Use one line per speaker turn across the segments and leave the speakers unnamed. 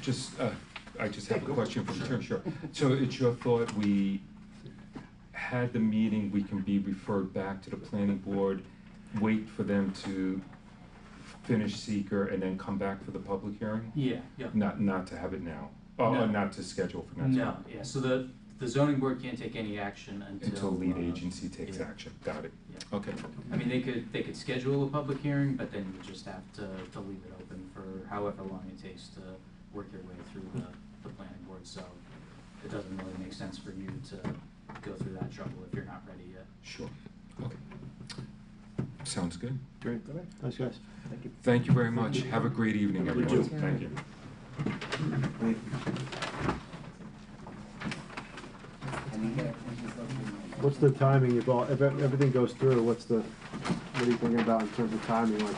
Just, uh, I just have a question for the term, sure. So it's your thought we had the meeting, we can be referred back to the planning board, wait for them to finish seeker and then come back for the public hearing?
Yeah, yeah.
Not, not to have it now, uh,
No.
not to schedule for next
No,
month?
yeah, so the, the zoning board can't take any action until.
Until lead
uh,
agency takes
yeah.
action, got it,
Yeah.
okay.
I mean, they could, they could schedule a public hearing, but then you just have to, to leave it open for however long it takes to work your way through the, the planning board, so it doesn't really make sense for you to go through that trouble if you're not ready yet.
Sure, okay. Sounds good.
Great. Thanks, guys.
Thank you very much. Have a great evening,
You
everyone.
too.
Thank you.
What's the timing of all, if ev- everything goes through, what's the, what are you thinking about in terms of timing, like?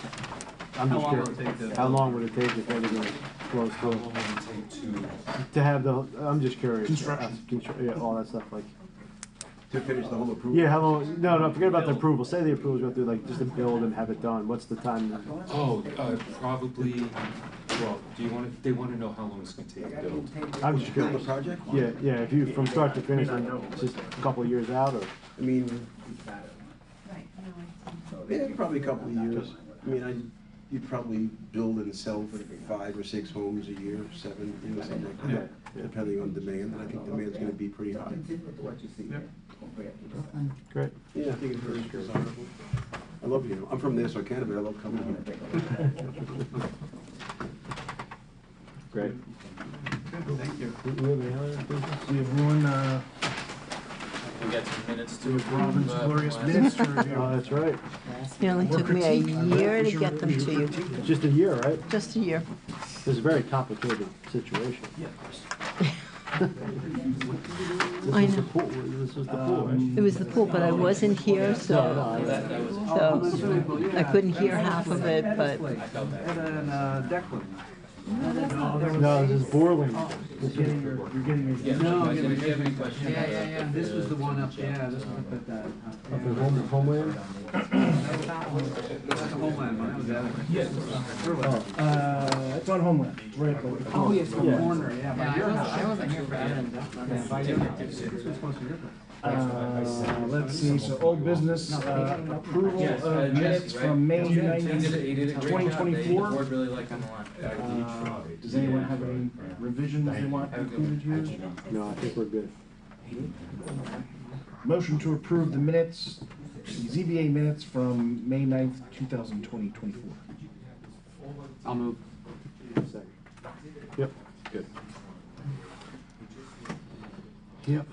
I'm just
How long will it
curious.
take to-
How long would it take if everything flows through? To have the, I'm just curious.
Construction.
Uh, constru- Yeah, all that stuff, like,
To finish the whole approval.
yeah, how long, no, no, forget about the
Build.
approval, say the approvals go through, like, just to build and have it done, what's the time?
Oh, uh, probably, well, do you want to, they want to know how long it's going to take to build.
I'm just
Build the
curious.
project?
Yeah, yeah, if you, from start to finish, like, just a couple of years out, or?
I mean,
Right, no,
yeah, probably a couple of years. I mean, I, you'd probably build and sell for five or six homes a year, seven, you know, something like that.
Yeah.
Depending on demand, and I think demand's gonna be pretty high.
Great.
Yeah, I think it's very desirable. I love, you know, I'm from Nassau County, but I love coming here.
Great.
Thank you.
Do we have any other business?
We have one, uh,
We got some minutes to.
we have Robin's
approve, uh,
glorious
last-
minutes to
Oh,
review.
that's right,
Nearly
More
took me a
critique? I
year
bet.
to
Should
get
we-
them
should
to
we
you.
critique them?
just a year, right?
Just a year.
It's a very complicated situation.
Yeah, of course.
This
I
was the
know.
pool, this was the pool, right? Uh,
It was the pool, but I wasn't here,
No, no, I-
so,
Um, That, that was,
so I couldn't hear half of it, but
I felt that.
No, this is Borland.
You're getting your- you're getting your-
Yeah,
No,
if you
yeah,
have- if you have any questions.
Yeah, yeah,
uh,
yeah, this was the one up,
check,
yeah, this
uh, um,
one up at that.
Up in Home- Homeland?
That's a homeland one, that was the other one.
Oh,
Uh, it's on Homeland, right, but-
Oh, yes, the
Yeah.
corner, yeah, by your house. I wasn't here for
Yeah,
that. By your house. It's close to your place.
Uh, let's see, so old business, uh, approval
Yes, uh,
of
Jesse,
minutes
right?
from May
He did- he did
ninth.
a- he did a great job. They-
2024.
The board really liked him a lot.
Uh, Does anyone have any revisions they want included here?
No, I think we're good.
Motion to approve the minutes, ZBA minutes from May ninth, two thousand twenty, twenty-four.
I'll move.
Second. Yep. Good. Yep.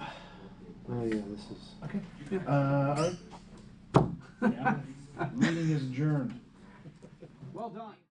Oh, yeah, this is,
Okay. Uh, all right. Meeting is adjourned.
Well done.